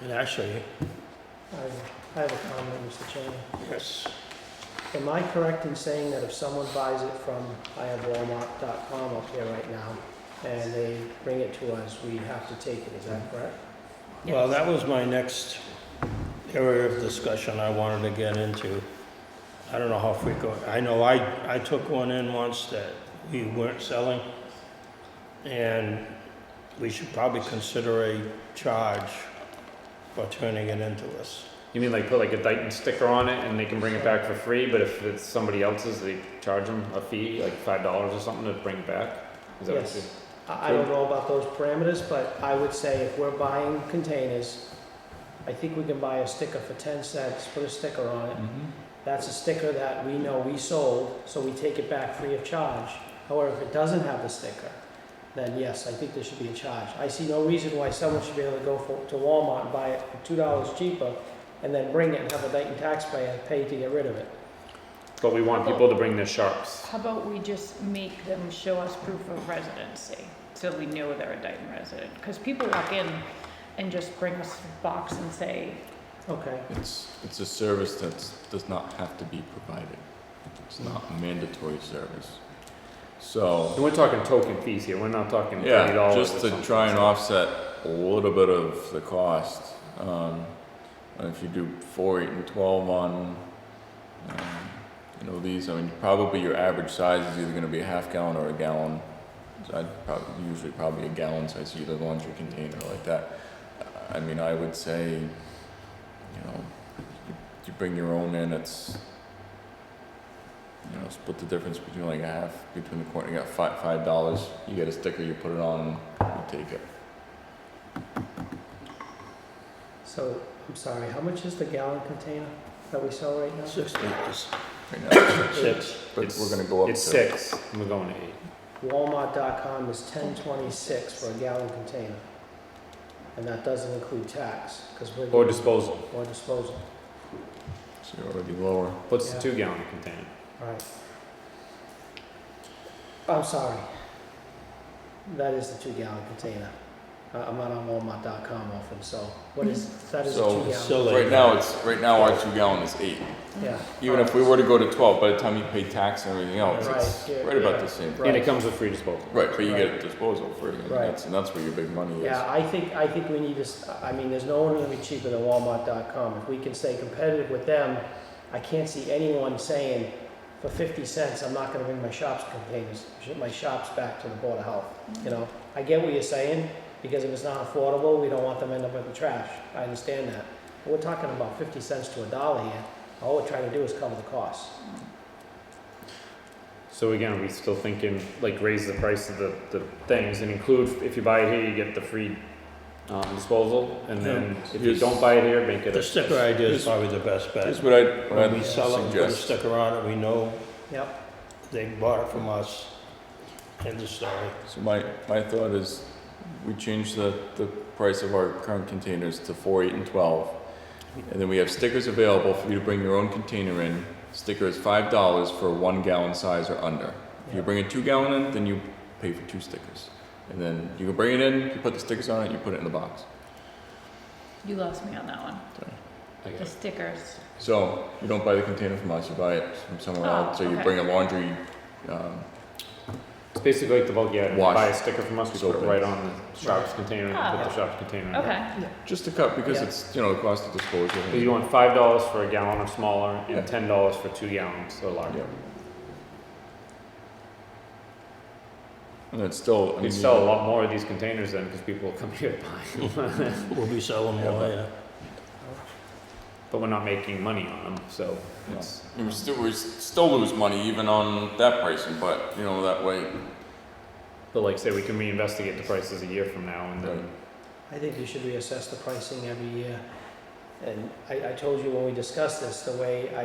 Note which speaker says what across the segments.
Speaker 1: And actually,
Speaker 2: I I have a comment, Mr. Chairman.
Speaker 1: yes,
Speaker 2: Am I correct in saying that if someone buys it from, I have Walmart.com up here right now, and they bring it to us, we have to take it, is that correct?
Speaker 1: well, that was my next area of discussion I wanted to get into. I don't know how frequent, I know I, I took one in once that we weren't selling. And we should probably consider a charge for turning it into us.
Speaker 3: You mean like put like a Dyson sticker on it and they can bring it back for free, but if it's somebody else's, they charge them a fee, like five dollars or something to bring it back? Is that what
Speaker 2: Yes. I I don't know about those parameters, but I would say if we're buying containers, I think we can buy a sticker for ten cents, put a sticker on
Speaker 3: you?
Speaker 2: it.
Speaker 4: Mm-hmm.
Speaker 2: That's a sticker that we know we sold, so we take it back free of charge. However, if it doesn't have the sticker, then yes, I think there should be a charge. I see no reason why someone should be able to go for, to Walmart and buy it for two dollars cheaper and then bring it and have a Dayton taxpayer pay to get rid of it.
Speaker 3: But we want people to bring their sharps.
Speaker 5: How about we just make them show us proof of residency, so we know they're a Dayton resident? Because people walk in and just bring us a box and say,
Speaker 2: Okay,
Speaker 4: It's, it's a service that's, does not have to be provided. It's not a mandatory service. So,
Speaker 3: And we're talking token fees here, we're not talking thirty
Speaker 4: yeah,
Speaker 3: dollars
Speaker 4: just to try and offset a little bit of the cost, um, and if you do four, eight, and twelve on, um, you know, these, I mean, probably your average size is either gonna be a half gallon or a gallon. So I'd probably, usually probably a gallon size, either laundry container like that. I mean, I would say, you know, you, you bring your own in, it's, you know, split the difference between like a half, between the corner, you got five, five dollars, you get a sticker, you put it on, you take it.
Speaker 2: so, I'm sorry, how much is the gallon container that we sell right now?
Speaker 1: Six liters,
Speaker 4: Right now,
Speaker 1: six.
Speaker 4: but we're gonna go up to.
Speaker 3: It's six, and we're going to eight.
Speaker 2: Walmart.com is ten twenty-six for a gallon container. And that doesn't include tax, because we're.
Speaker 3: Or disposal,
Speaker 2: Or disposal,
Speaker 4: So you're already lower.
Speaker 3: what's the
Speaker 2: Yeah.
Speaker 3: two gallon container?
Speaker 2: right. I'm sorry. That is the two gallon container. I- I'm not on Walmart.com often, so what is, that is a two
Speaker 4: So-
Speaker 2: gallon,
Speaker 1: Still,
Speaker 4: Right now, it's, right now, our two gallon is eight.
Speaker 2: yeah.
Speaker 4: Even if we were to go to twelve, by the time you pay tax and everything else, it's
Speaker 2: Right, yeah,
Speaker 4: right about
Speaker 2: yeah.
Speaker 4: the same.
Speaker 3: And it
Speaker 2: Right.
Speaker 3: comes with free disposal.
Speaker 4: Right, but you get a disposal for it, and
Speaker 2: Right.
Speaker 4: that's, and that's where your big money is.
Speaker 2: Yeah, I think, I think we need to, s- I mean, there's no one gonna be cheaper than Walmart.com. If we can stay competitive with them, I can't see anyone saying, for fifty cents, I'm not gonna bring my shops containers, my shops back to the Board of Health, you know? I get what you're saying, because if it's not affordable, we don't want them to end up with the trash. I understand that. But we're talking about fifty cents to a dollar here. All we're trying to do is cover the costs.
Speaker 3: So again, are we still thinking, like, raise the price of the, the things and include, if you buy it here, you get the free, um, disposal? And then if you
Speaker 4: Here's-
Speaker 3: don't buy it here, make it
Speaker 1: The
Speaker 3: a
Speaker 1: sticker idea is probably the best bet.
Speaker 4: Here's what I, what
Speaker 1: When we
Speaker 4: I
Speaker 1: sell it, we put a
Speaker 4: suggest.
Speaker 1: sticker on it, we know
Speaker 2: Yep.
Speaker 1: they bought it from us. End of story.
Speaker 4: So my, my thought is, we change the, the price of our current containers to four, eight, and twelve. And then we have stickers available for you to bring your own container in. Sticker is five dollars for a one gallon size or under. If you bring a two gallon in, then you pay for two stickers. And then you can bring it in, you put the stickers on it, you put it in the box.
Speaker 5: you lost me on that one.
Speaker 3: I got
Speaker 5: The stickers.
Speaker 4: So you don't buy the container from us, you buy it from somewhere
Speaker 5: Oh,
Speaker 4: else. So you
Speaker 5: okay.
Speaker 4: bring a laundry, um,
Speaker 3: It's basically like the bulk, yeah,
Speaker 4: Wash.
Speaker 3: buy a sticker from us, we put it
Speaker 4: Soap.
Speaker 3: right on the shop's container and
Speaker 5: Ah.
Speaker 3: put the shop's container in. there.
Speaker 5: Okay,
Speaker 4: just to cut because
Speaker 2: Yeah.
Speaker 4: it's, you know, the cost of disposal.
Speaker 3: So you want five dollars for a gallon or smaller
Speaker 4: Yeah.
Speaker 3: and ten dollars for two gallons or larger.
Speaker 4: Yeah. And it's still, I mean.
Speaker 3: We'd sell a lot more of these containers then, because people will come here to buy them.
Speaker 1: We'll be selling
Speaker 4: Yeah,
Speaker 1: more,
Speaker 4: but-
Speaker 1: yeah.
Speaker 3: But we're not making money on them, so
Speaker 4: No.
Speaker 3: it's,
Speaker 4: We would still, we would still lose money even on that pricing, but, you know, that way,
Speaker 3: but like, say, we can reinvestigate the prices a year from now and then.
Speaker 2: I think you should reassess the pricing every year. And I, I told you when we discussed this, the way I,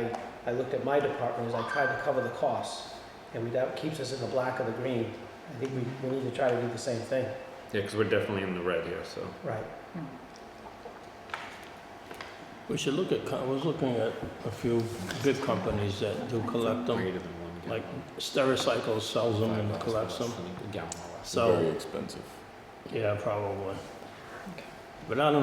Speaker 2: I looked at my department is I tried to cover the costs. And we- that keeps us in the black or the green. I think we, we need to try to do the same thing.
Speaker 3: Yeah, because we're definitely in the red here, so.
Speaker 2: Right.
Speaker 1: We should look at, co- I was looking at a few good companies that do collect them,
Speaker 3: Greater than one
Speaker 1: like
Speaker 3: gallon.
Speaker 1: Stericycle sells them
Speaker 3: Five
Speaker 1: and
Speaker 3: bucks
Speaker 1: collects
Speaker 3: less
Speaker 1: them.
Speaker 3: than a gallon or less.
Speaker 1: So,
Speaker 4: very expensive.
Speaker 1: yeah, probably.
Speaker 5: Okay.
Speaker 1: But I don't